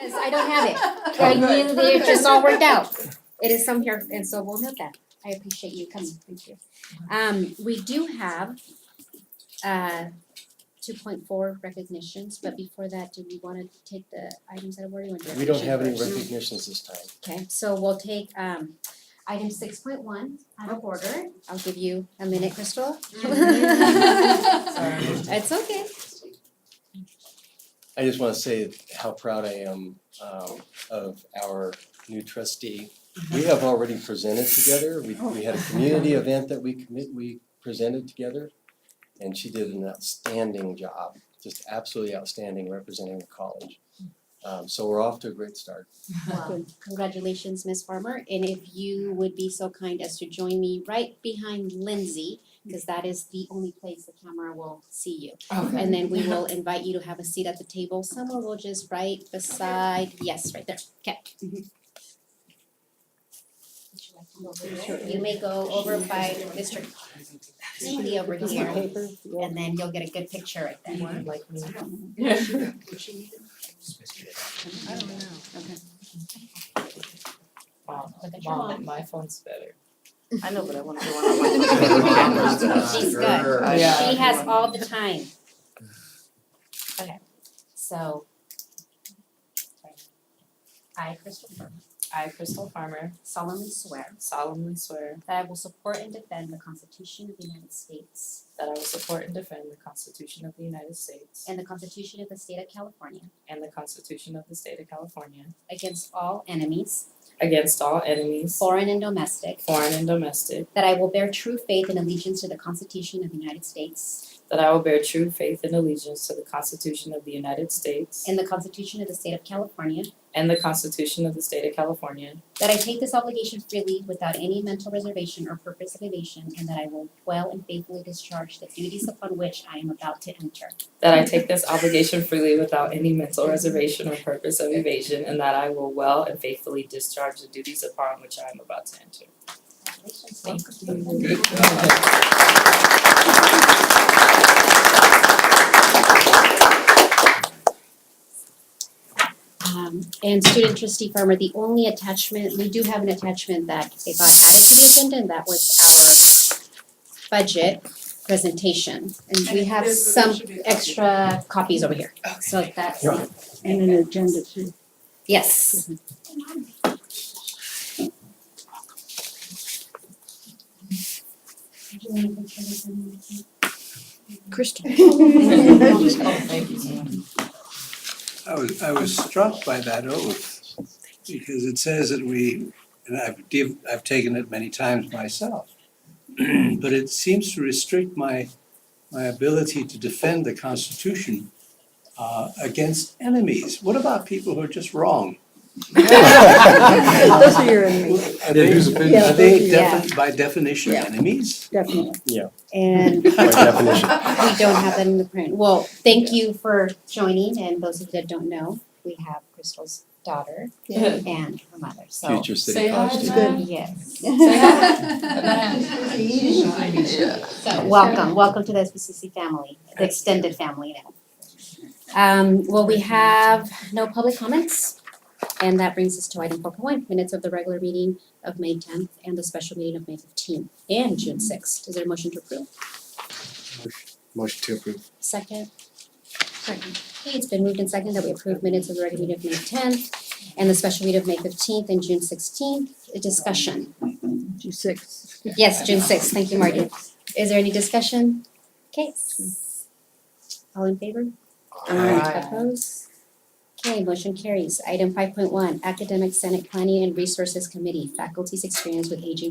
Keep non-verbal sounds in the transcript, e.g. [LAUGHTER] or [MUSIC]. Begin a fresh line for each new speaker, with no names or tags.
Cause I don't have it, I knew that it just all worked out. It is some here, and so we'll note that, I appreciate you coming, thank you. Um, we do have uh two point four recognitions, but before that, do we wanna take the items that were in direction?
We don't have any
first?
recognitions this time.
Okay, so we'll take um item six point one out of order. I'll give you a minute, Crystal. [LAUGHS] It's okay.
I just wanna say how proud I am um of our new trustee.
Mm-hmm.
We have already presented together, we
Oh,
we had a community event that we commit, we presented together. And she did an outstanding job, just absolutely outstanding representing the college. Um so we're off to a great
[LAUGHS]
start.
Well, Um, Congratulations, Ms. Farmer, and if you would be so kind as to join me right behind Lindsay, because that is the only place the camera will see you.
Okay.
And then we will invite you to have a seat at the table, someone will just right beside, yes, right there, okay. You may go over by Mr. Tingley over here, and then you'll get a good picture right there.
I don't know.
Okay.
Mom,
Look at your
mom,
mom.
my phone's better.
I know, but I
[LAUGHS]
wanna go
She's good. She has all the time. Okay, so. I, Crystal Burke,
I, Crystal Farmer,
solemnly swear
solemnly swear
that I will support and defend the Constitution of the United States
that I will support and defend the Constitution of the United States
and the Constitution of the State of California
and the Constitution of the State of California
against all enemies,
against all enemies,
foreign and domestic,
foreign and domestic,
that I will bear true faith and allegiance to the Constitution of the United States
that I will bear true faith and allegiance to the Constitution of the United States
and the Constitution of the State of California,
and the Constitution of the State of California,
that I take this obligation freely without any mental reservation or purpose of evasion, and that I will well and faithfully discharge the duties upon which I am about to enter.
that I take this obligation freely without any mental reservation or purpose of evasion, and that I will well and faithfully discharge the duties upon which I am about to enter.
Congratulations.
Thank
Um, and student trustee farmer, the only attachment, we do have an attachment that it got added to the agenda and that was our budget presentation. And we have some extra copies over here, so that's,
Yeah.
And an agenda too.
yes.
Crystal.
Oh, thank you so much.
I was, I was struck by that oath, because it says that we, and I've div, I've taken it many times myself. [CLEARS THROAT] But it seems to restrict my, my ability to defend the Constitution uh against enemies. What about people who are just wrong?
[LAUGHS] Those are your enemies,
Are they,
whose opinion?
are they
Yeah.
defi- by definition
Yeah.
enemies?
definitely.
And
By
[LAUGHS]
definition.
we don't have that in the print. Well, thank you for joining, and those of you that don't know, we have Crystal's daughter
Yeah.
and her mother, so.
Future
Say
city
hi,
college
It's
student.
Matt. good.
Yes.
Yeah.
So welcome, welcome to the SBCC family, the extended family now. Um, well, we have no public comments, and that brings us to item four point one, minutes of the regular meeting of May tenth and the special meeting of May fifteenth and June sixth. Is there a motion to approve?
Motion to approve.
Second? Second. Okay, it's been moved and second that we approve minutes of the regular meeting of May tenth and the special meeting of May fifteenth and June sixteenth. Discussion.
Two six.
Yes, June sixth. Thank you, Marty. Is there any discussion? Okay. All in favor?
Aye.
Opposed? Okay, motion carries. Item five point one, Academic Senate Planning and Resources Committee, Faculty's Experience with Aging